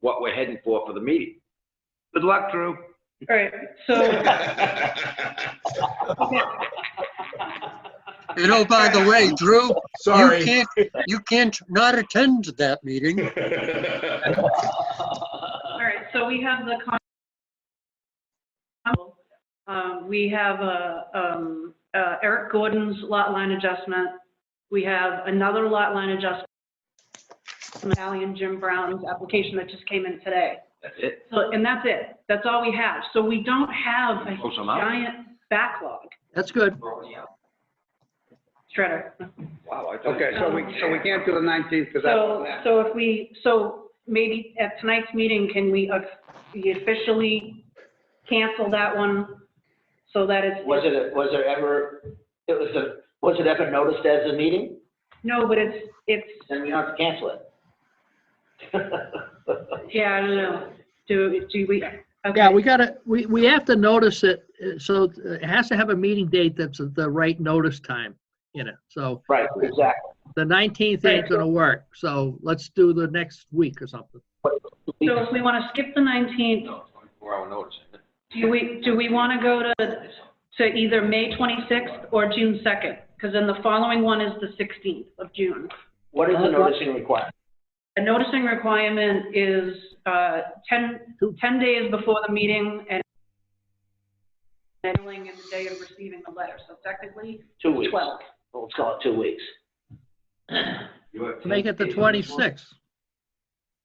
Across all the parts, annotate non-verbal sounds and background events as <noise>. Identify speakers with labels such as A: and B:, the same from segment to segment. A: what we're heading for for the meeting. Good luck, Drew.
B: All right,
A: <laughs>
B: so,
C: You know, by the way, Drew, you
D: Sorry.
C: can't, you can't not attend that meeting.
B: all right, so we have the con- um, we have, uh, um, uh, Eric Gordon's lot line adjustment. We have another lot line adjustment. Sally and Jim Brown's application that just came in today.
A: That's it.
B: So, and that's it. That's all we have. So we don't have a
A: Close them out.
B: giant backlog.
C: That's good.
B: Shredder.
A: Wow, I thought.
E: Okay, so we, so we can't do the 19th because
B: So,
E: that's,
B: so if we, so maybe at tonight's meeting, can we uh, we officially cancel that one so that it's,
F: Was it, was there ever, it was a, was it ever noticed as a meeting?
B: no, but it's, it's,
F: Then we don't have to cancel it.
B: yeah, I don't know. Do, do we,
C: Yeah,
B: okay,
C: we gotta, we, we have to notice it, uh, so it has to have a meeting date that's at the right notice time in it. So
F: Right, exactly.
C: the 19th ain't
B: Right.
C: gonna work, so let's do the next week or something.
B: so if we want to skip the 19th,
A: Four hour notice.
B: do we, do we want to go to, to either May 26th or June 2nd? Because then the following one is the 16th of June.
F: What is the noticing requirement?
B: A noticing requirement is uh, 10, 10 days before the meeting and mailing and the day of receiving the letter, so technically
F: Two weeks.
B: 12.
F: Well, Let's call it two weeks.
C: Make it the 26th.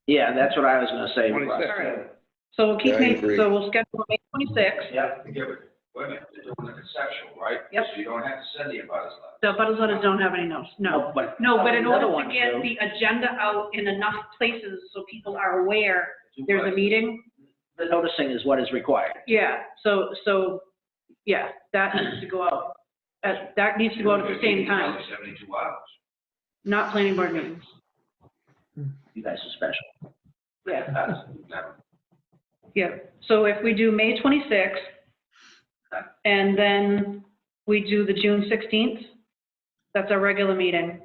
F: Yeah, that's what I was gonna say. Russ.
E: 26th.
B: All right. So we'll keep,
D: Yeah, I
B: making-
D: agree.
B: so we'll schedule May 26th,
F: Yeah,
A: Yeah, but, wait a minute, they're doing the conceptual, right?
B: Yep.
A: So you don't have to send the abutters letter.
B: the butters letters don't have any notes, no.
F: but.
B: No, but in order
F: Another one,
B: to get
F: Joe.
B: the agenda out in enough places so people are aware there's a meeting,
F: The noticing is what is required.
B: yeah, so, so, yeah, that needs to go out. That, that needs to go out at the same time,
A: Seventy-two hours.
B: not planning board meetings,
F: You guys are special.
B: yeah.
A: That's never-
B: Yeah, so if we do May 26th, and then we do the June 16th, that's our regular meeting.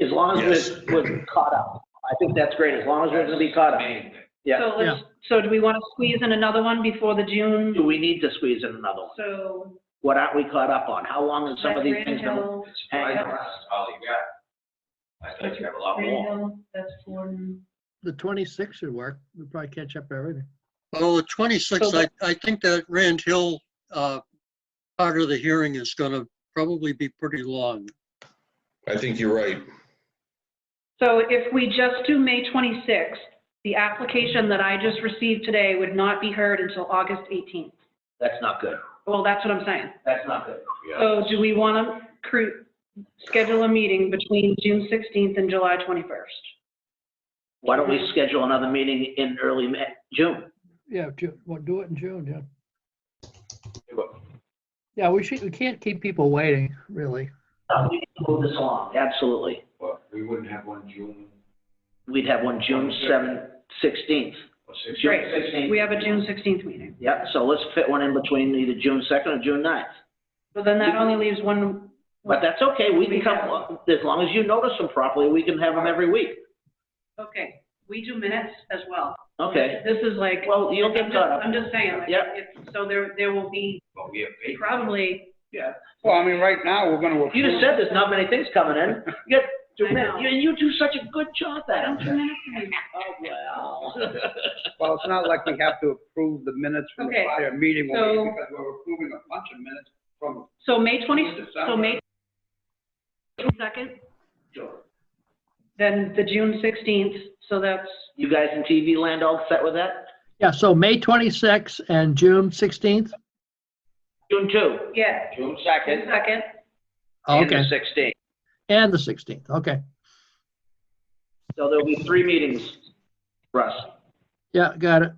F: As long as
D: Yes.
F: we're, we're caught up. I think that's great, as long as we're gonna be caught up.
A: Main thing.
F: Yeah.
B: So let's, so do we want to squeeze in another one before the
F: Do
B: June?
F: we need to squeeze in another one?
B: So.
F: What aren't we caught up on? How long is some of these
B: Grand
F: things gonna?
B: Hill,
A: It's surprising, that's all you got. I thought you have a lot
B: Grand
A: more.
B: Hill, That's Forden.
C: The 26th should work. We'll probably catch up everything.
G: Oh, the 26th,
B: So-
G: I, I think that Rand Hill, uh, part of the hearing is gonna probably be pretty long.
D: I think you're right.
B: So if we just do May 26th, the application that I just received today would not be heard until August 18th.
F: That's not good.
B: Well, that's what I'm saying.
F: That's not good.
B: So do we want to cre schedule a meeting between June 16th and July 21st?
F: Why don't we schedule another meeting in early Ma- June?
C: Yeah, Ju- well, do it in June, yeah. Yeah, we should, we can't keep people waiting, really.
F: Uh, We need to move this along, absolutely.
A: Well, we wouldn't have one June
F: We'd have one June 7th, 16th.
A: or six.
F: June
B: Right.
F: 16th.
B: We have a June 16th meeting.
F: Yep, so let's fit one in between either June 2nd or June 9th.
B: So then that only leaves one,
F: But that's okay, we can
B: We
F: come,
B: have-
F: as long as you notice them properly, we can have them every week.
B: okay, we do minutes as well.
F: Okay,
B: This is like,
F: well, you'll
B: I'm
F: get
B: just,
F: caught up.
B: I'm just saying, like,
F: Yep.
B: it's- so there, there will be
A: But we have paper.
B: probably,
E: well, I mean, right now, we're going to.
F: You just said there's not many things coming in. You got two
B: I
F: minutes,
B: know.
F: and you do such a good job
B: I
F: at
B: don't
F: it.
B: remember.
F: Oh, well.
E: Well, it's not like we have to approve the minutes from the
B: Okay,
E: prior meeting,
B: so-
E: because we're approving a bunch of minutes from
B: So May 20, so May 2nd, then the June 16th, so that's,
F: <laughs> You guys in TV land all set with that?
C: Yeah, so May 26th and June 16th?
F: June 2,
B: yeah,
A: June
B: June
A: second.
B: 2nd.
F: and the
C: Okay,
F: 16th.
C: and the 16th, okay.
F: So there'll be three meetings, Russ.
C: Yeah, got it.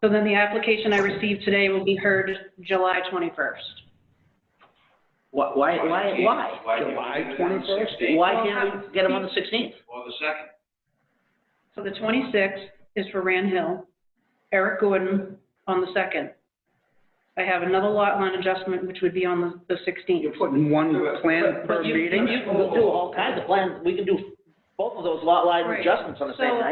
B: So then the application I received today will be heard July 21st.
F: Why, why, why? why?
E: July 21st?
F: Why can't we get them on the 16th?
A: Or the second.
B: So the 26th is for Rand Hill, Eric Gordon on the 2nd. I have another lot line adjustment, which would be on the- the
E: You're
B: 16th.
E: putting one plan per
F: But you-
E: meeting?
F: You can do all kinds of plans, we can do both of those lot line
B: Right.
F: adjustments on the same
B: So-
F: night.